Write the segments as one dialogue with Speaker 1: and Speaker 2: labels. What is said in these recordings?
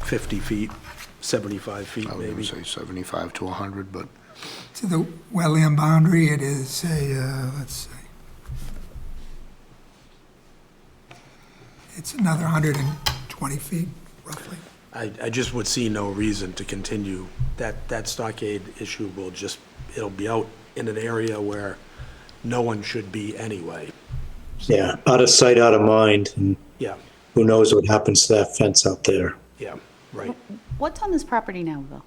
Speaker 1: 50 feet, 75 feet
Speaker 2: I would even
Speaker 1: maybe.
Speaker 2: say 75 to 100, but
Speaker 3: To the wetland boundary, it is a, uh, let's see. It's another 120 feet roughly.
Speaker 1: I, I just would see no reason to continue. That, that stockade issue will just, it'll be out in an area where no one should be anyway.
Speaker 4: Yeah, out of sight, out of mind, and
Speaker 1: Yeah,
Speaker 4: who knows what happens to that fence out there.
Speaker 1: yeah, right.
Speaker 5: What's on this property now, Will?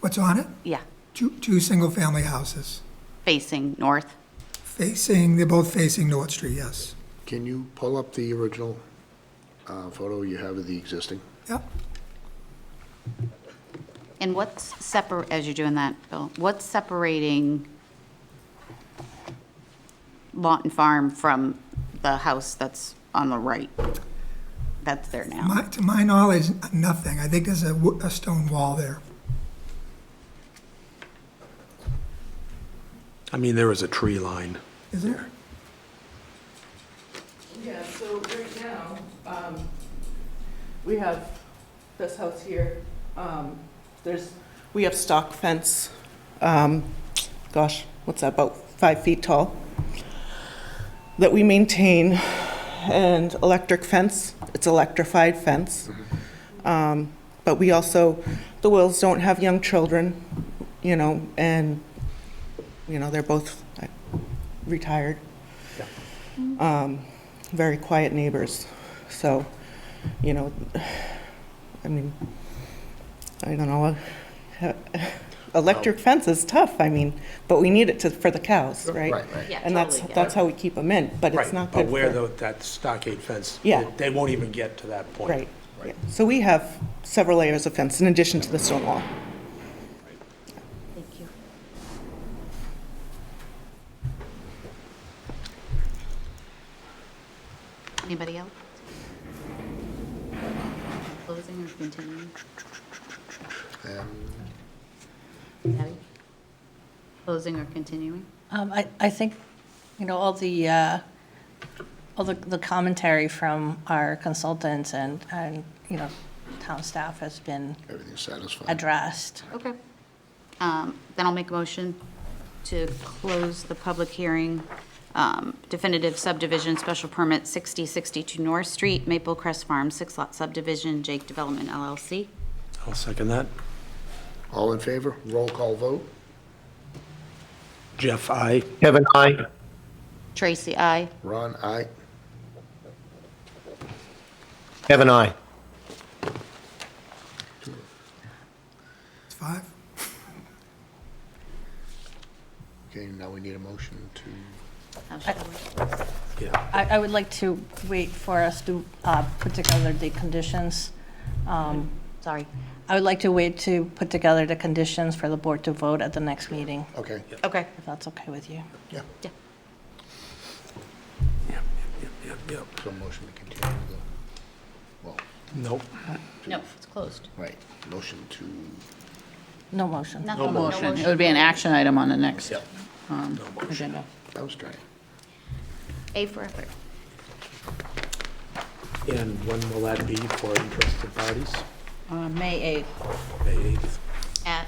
Speaker 3: What's on it?
Speaker 5: Yeah,
Speaker 3: Two, two single-family houses
Speaker 5: facing north.
Speaker 3: facing, they're both facing North Street, yes.
Speaker 2: can you pull up the original uh, photo you have of the existing?
Speaker 3: Yep.
Speaker 5: And what's separ, as you're doing that, Bill, what's separating Lawton Farm from the house that's on the right? That's there now.
Speaker 3: My, to my knowledge, nothing. I think there's a, wo- a stone wall there.
Speaker 1: I mean, there is a tree line.
Speaker 3: Is there?
Speaker 6: Yeah, so right now, um, we have this house here, um, there's, we have stock fence, um, gosh, what's that, about five feet tall, that we maintain, and electric fence, it's electrified fence. Um, But we also, the Wills don't have young children, you know, and, you know, they're both uh, retired Um, very quiet neighbors. So, you know, I mean, I don't know. Electric fence is tough, I mean, but we need it to, for the cows, right?
Speaker 2: right.
Speaker 5: Yeah,
Speaker 6: And that's,
Speaker 5: totally get
Speaker 6: that's how we keep them in, but it's
Speaker 1: Right,
Speaker 6: not
Speaker 1: But
Speaker 6: good
Speaker 1: where
Speaker 6: for.
Speaker 1: the, that stockade fence.
Speaker 6: Yeah.
Speaker 1: they- They won't even get to that point.
Speaker 6: Right, yeah. So we have several layers of fence in addition to the stone wall.
Speaker 5: Thank you. Anybody else? Closing or continuing? Abby? Closing or continuing?
Speaker 7: Um, I, I think, you know, all the, uh, all the, the commentary from our consultants and, and, you know, town staff has been
Speaker 2: Everything's satisfied.
Speaker 7: addressed.
Speaker 5: Okay. Um, Then I'll make a motion to close the public hearing, um, definitive subdivision, special permit 6062 North Street, Maple Crest Farm, six-lot subdivision, Jake Development LLC.
Speaker 1: I'll second that.
Speaker 2: All in favor? Roll call vote?
Speaker 1: Jeff, I.
Speaker 4: Kevin, I.
Speaker 5: Tracy, I.
Speaker 2: Ron, aye.
Speaker 4: Kevin, I.
Speaker 3: It's five?
Speaker 2: Okay, now we need a motion to,
Speaker 1: Yeah,
Speaker 7: I, I would like to wait for us to, uh, put together the conditions. Um,
Speaker 5: Sorry.
Speaker 7: I would like to wait to put together the conditions for the board to vote at the next meeting,
Speaker 2: okay,
Speaker 5: Okay.
Speaker 7: if that's okay with you.
Speaker 2: yeah,
Speaker 5: Yeah.
Speaker 1: yep, yep, yep, yep.
Speaker 2: so motion to continue the, well,
Speaker 1: Nope.
Speaker 5: No, it's closed.
Speaker 2: right, motion to,
Speaker 7: No motion.
Speaker 5: No
Speaker 8: motion. It would be an action item on the next
Speaker 2: Yep.
Speaker 8: um, agenda.
Speaker 2: I was trying.
Speaker 5: A for effort.
Speaker 1: And when will that be for interested parties?
Speaker 8: Uh, May 8th.
Speaker 1: May 8th.
Speaker 5: At,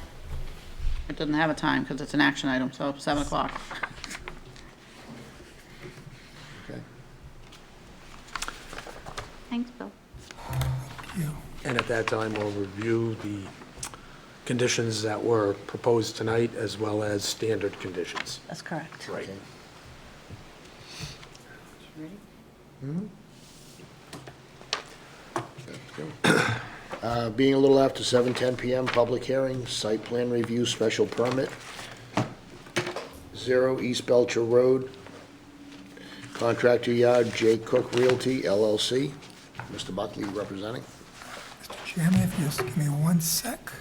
Speaker 8: It doesn't have a time because it's an action item, so 7 o'clock.
Speaker 2: Okay.
Speaker 5: thanks, Bill.
Speaker 3: You.
Speaker 1: And at that time, we'll review the conditions that were proposed tonight as well as standard conditions.
Speaker 7: That's correct.
Speaker 1: Right.
Speaker 5: Ready?
Speaker 2: Mm-hmm. Uh, Being a little after 7:10 PM, public hearing, site plan review, special permit, 0 East Belcher Road, contractor yard J. Cook Realty LLC, Mr. Buckley representing.
Speaker 3: Mr. Chairman, if you just give me one sec.